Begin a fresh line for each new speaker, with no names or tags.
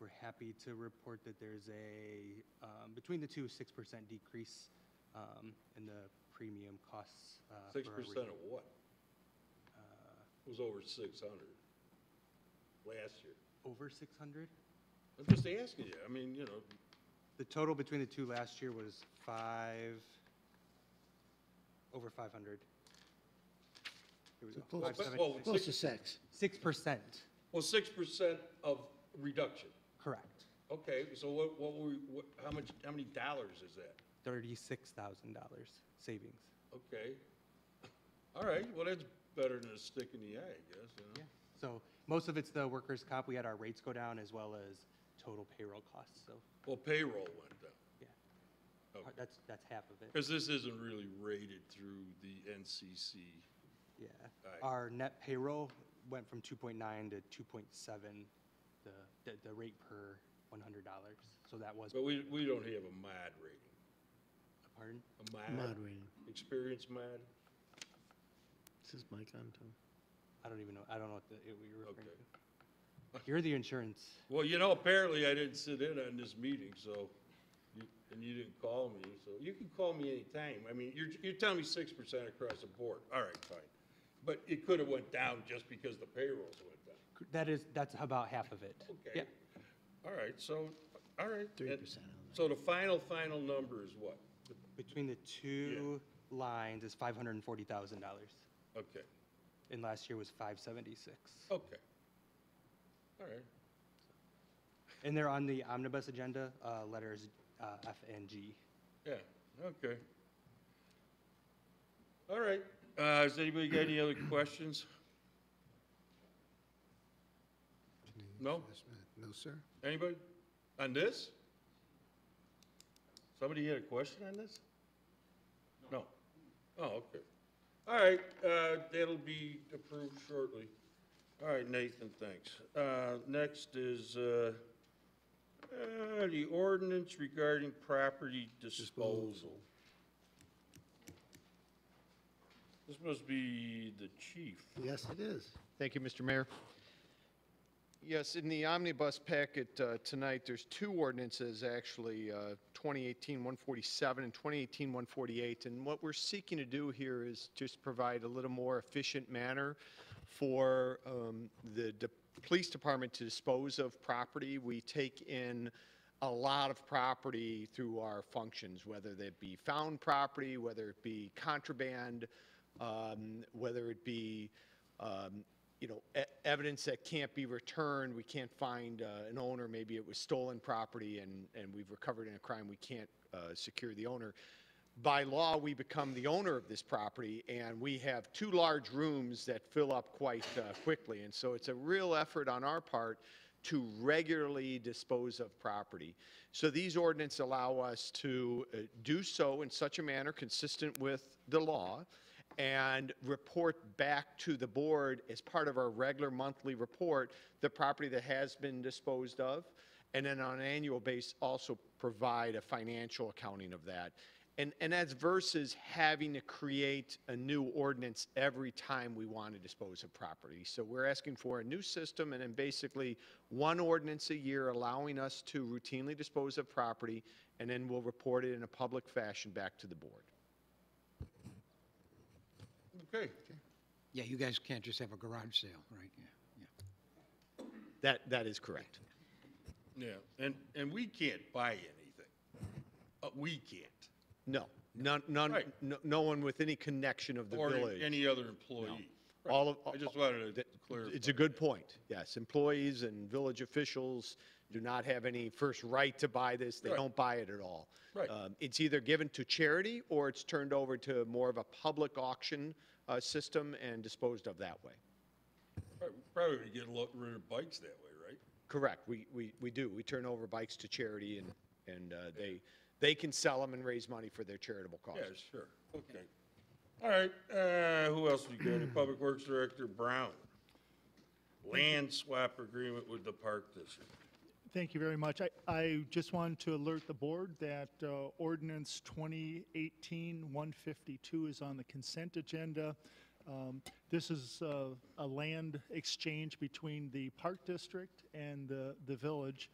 we're happy to report that there's a, um, between the two, 6% decrease um, in the premium costs. uh,
Six
for uh, our
percent
rate.
of what? It was over six hundred last year.
Over 600?
I'm just asking you, I mean, you know,
The total between the two last year was five, over 500. Here we go.
Close.
Five, seven-
Well,
Close to six.
6%,
well, six percent of reduction.
correct.
Okay, so what, what were, what, how much, how many dollars is that?
$36,000 savings.
Okay. All right, well, that's better than a stick in the eye, I guess, you know?
Yeah. So most of it's the workers' comp. We had our rates go down as well as total payroll costs, so,
Well, payroll went down,
yeah.
Okay.
That's, that's half of it,
because this isn't really rated through the NCC.
yeah.
Alright.
Our net payroll went from 2.9 to 2.7, the, the- the rate per $100. So that was,
But we, we don't have a mod rating.
pardon?
A
Mod
mod,
rating.
experience mod?
This is Mike on, Tom.
I don't even know, I don't know what the, what you're referring
Okay.
to. You're the insurance.
Well, you know, apparently I didn't sit in on this meeting, so, you- and you didn't call me, so you can call me anytime. I mean, you're, you're telling me six percent across the board. All right, fine. But it could have went down just because the payrolls went down.
That is, that's about half of it. Yeah.
Okay. All right, so, all right.
3% on that.
So the final, final number is what?
Between the two lines is $540,000,
Okay,
and last year was 576.
okay. All right.
And they're on the omnibus agenda, uh, letters uh, F and G.
Yeah, okay. All right, uh, has anybody got any other questions? No?
No, sir.
Anybody? On this? Somebody had a question on this? No? Oh, okay. All right, uh, that'll be approved shortly. All right, Nathan, thanks. Uh, next is, uh, uh, the ordinance regarding property disposal. This must be the chief.
Yes, it is.
Thank you, Mr. Mayor. Yes, in the omnibus packet uh, tonight, there's two ordinances, actually, uh, 2018-147 and 2018-148. And what we're seeking to do here is just provide a little more efficient manner for um, the de- police department to dispose of property. We take in a lot of property through our functions, whether that be found property, whether it be contraband, um, whether it be um, you know, e- evidence that can't be returned, we can't find uh, an owner, maybe it was stolen property and, and we've recovered in a crime, we can't uh, secure the owner. By law, we become the owner of this property, and we have two large rooms that fill up quite uh, quickly. And so it's a real effort on our part to regularly dispose of property. So these ordinance allow us to uh, do so in such a manner consistent with the law and report back to the board as part of our regular monthly report, the property that has been disposed of, and then on an annual base, also provide a financial accounting of that. And, and that's versus having to create a new ordinance every time we want to dispose of property. So we're asking for a new system and then basically one ordinance a year allowing us to routinely dispose of property, and then we'll report it in a public fashion back to the board.
Okay,
Yeah, you guys can't just have a garage sale, right? Yeah, yeah.
That, that is correct.
yeah, and, and we can't buy anything. Uh, we can't.
No, none, none,
Right.
no, no one with any connection of the
Or
village.
any other employee. Right.
All of-
I just wanted to clarify.
It's a good point. Yes, employees and village officials do not have any first right to buy this. They
Right.
don't buy it at all.
Right.
Um, It's either given to charity or it's turned over to more of a public auction, uh, system and disposed of that way.
Probably- Probably would get a lot rid of bikes that way, right?
Correct. We, we, we do. We turn over bikes to charity and, and, uh, they, they can sell them and raise money for their charitable
Yeah,
causes.
sure, okay. All right, uh, who else we got? Public Works Director Brown. Land swap agreement with the Park District.
Thank you very much. I, I just wanted to alert the board that uh, ordinance 2018-152 is on the consent agenda. Um, This is uh, a land exchange between the Park District and the, the village.